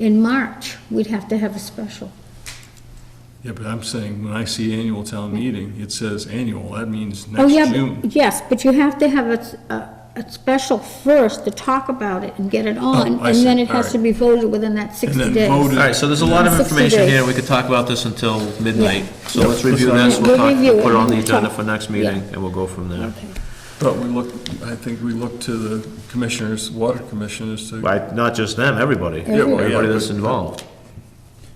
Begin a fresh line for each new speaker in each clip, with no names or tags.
in March, we'd have to have a special.
Yeah, but I'm saying, when I see annual town meeting, it says annual, that means
Oh
next
yeah,
June.
but- Yes, but you have to have a, s- a- a special first to talk about it and get it
Oh,
on,
I
and then
see.
it has to
Alright.
be voted within that 60
then
days.
voted.
All right, so there's a lot of
60
information here,
days.
we could talk about this until midnight. So let's review
Yeah,
this,
we'll
we'll talk,
review
we'll
it
put it on the
and
agenda
talk.
for next meeting, and we'll go from there.
Okay.
But we look, I think we look to the commissioners, water commissioners to,
Right, not just them, everybody,
Yeah, well, yeah,
everybody
but-
that's involved.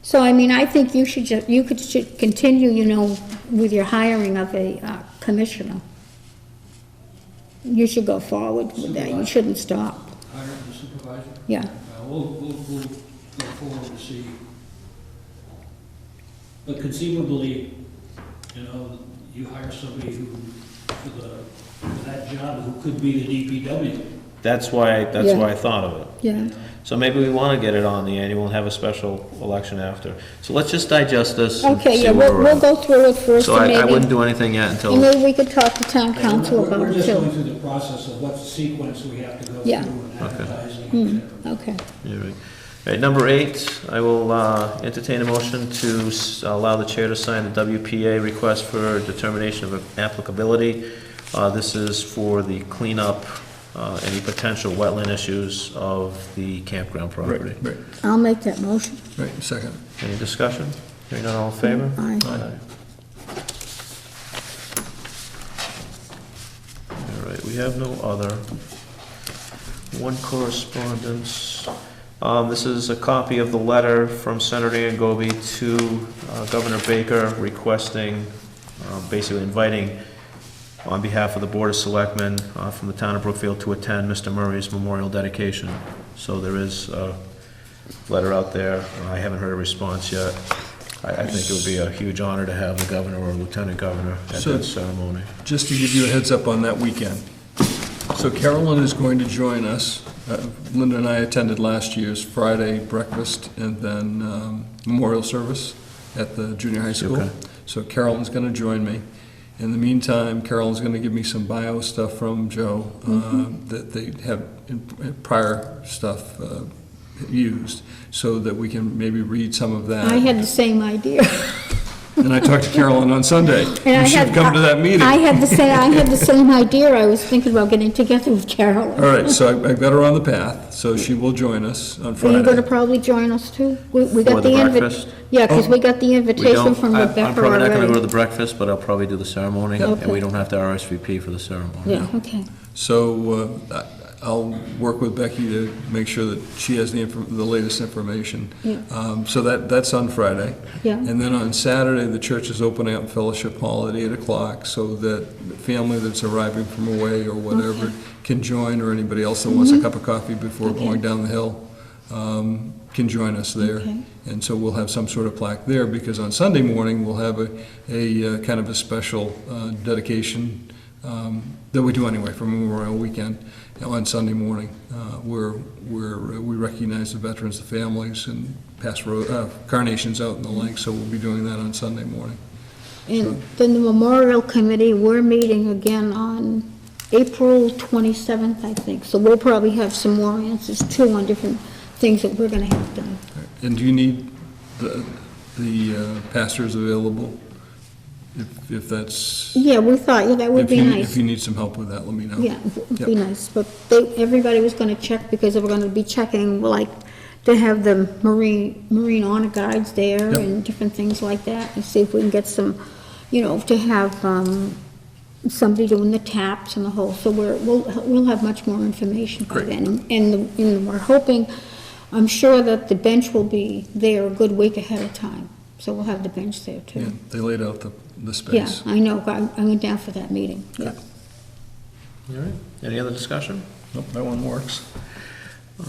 So I mean, I think you should just, you could, should continue, you know, with your hiring of a uh, commissioner. You should go forward with that, you shouldn't stop,
hire the supervisor.
yeah.
Uh, We'll, we'll, we'll go forward to see. But conceivably, you know, you hire somebody who, for the, for that job, who could be E the DPW.
That's why, that's
Yeah.
why I thought of it.
Yeah,
So maybe we wanna get it on the annual and have a special election after. So let's just digest this and
okay,
see
yeah,
where
we'll,
we're
we'll
at.
go through it first,
So
and
I, I wouldn't
maybe,
do anything yet until.
and maybe we could talk to town council
We're-
about
We're
it
just going
too.
through the process of what sequence we have to go through
Yeah.
and
Okay.
advertising, et cetera.
Okay,
All right. All right, number eight, I will uh, entertain a motion to s- allow the chair to sign the WPA request for determination of applicability. Uh, This is for the cleanup, uh, any potential wetland issues of the campground property.
right, right,
I'll make that motion,
right, second.
Any discussion? Hearing none, all in favor?
Aye.
Aye. All right, we have no other. One correspondence. Um, this is a copy of the letter from Senator Angobi to uh, Governor Baker requesting, um, basically inviting on behalf of the Board of Selectmen uh, from the town of Brookfield to attend Mr. Murray's memorial dedication. So there is a letter out there. I haven't heard a response yet. I, I think it would be a huge honor to have the governor or lieutenant governor at
So-
that ceremony.
Just to give you a heads up on that weekend. So Carolyn is going to join us. Uh, Linda and I attended last year's Friday breakfast and then um, memorial service at the junior high school.
Okay.
So Carolyn's going to join me. In the meantime, Carolyn's going to give me some bio stuff from Joe uh, that they have in- prior stuff uh, used, so that we can maybe read some of that.
I had the same idea.
And I talked to Carolyn on Sunday.
And I
You should
had-
come to that meeting.
I had the same, I had the same idea, I was thinking about getting together with
All
Carolyn.
right, so I- I've got her on the path, so she will join us on
Are you gonna
Friday.
probably join us too? We we
For
got
the
the
breakfast?
invi- Yeah, because
Oh.
we got the
We
invitation
don't,
from
I- I'm
Rebecca
probably not gonna go to
already.
the breakfast, but I'll probably do the ceremony, and
Okay.
we don't have to RSVP for the ceremony.
Yeah, okay,
So uh, I- I'll work with Becky to make sure that she has the, infor- the latest information.
Yeah.
Um, So that, that's on Friday.
yeah,
And then on Saturday, the church is opening up Fellowship Hall at 8 o'clock so that the family that's arriving from away or whatever can join, or anybody else that wants a cup of coffee before
Mm-hmm. Okay.
going down the hill um, can join us there.
Okay.
And so we'll have some sort of plaque there, because on Sunday morning, we'll have a, a uh, kind of a special uh, dedication um, that we do anyway for Memorial Weekend on Sunday morning, uh, where, where uh, we recognize the veterans, the families, and pass ro- uh, carnations out in the lake, so we'll be doing that on Sunday morning.
and then the memorial committee, we're meeting again on April twenty-seventh, I think, so we'll probably have some more answers too on different things that we're gonna have done.
And do you need the, the uh, pastors available? If, if that's,
Yeah, we thought, yeah, that would
if
be
you,
nice.
if you need some help with that, let me know.
Yeah, it'd be
Yep.
nice, but they, everybody was gonna check, because they were gonna be checking, like, to have the marine, marine honor guides there
Yep.
and different things like that, and see if we can get some, you know, to have, um, somebody doing the taps and the whole, so we're, we'll, we'll have much more information by
Great.
then. And, and we're hoping, I'm sure that the bench will be there a good week ahead of time, so we'll have the bench there
Yeah,
too.
they laid out the, the
Yeah,
space.
I know, I, I went down for that meeting, yeah.
All right, any other discussion?
Nope, that one works.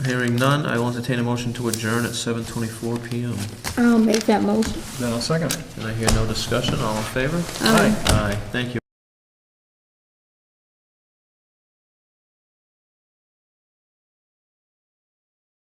Hearing none, I will entertain a motion to adjourn at seven twenty-four PM.
I'll make that motion.
Then I'll second it.
And I hear no discussion, all in favor?
Aye.
Aye, thank you.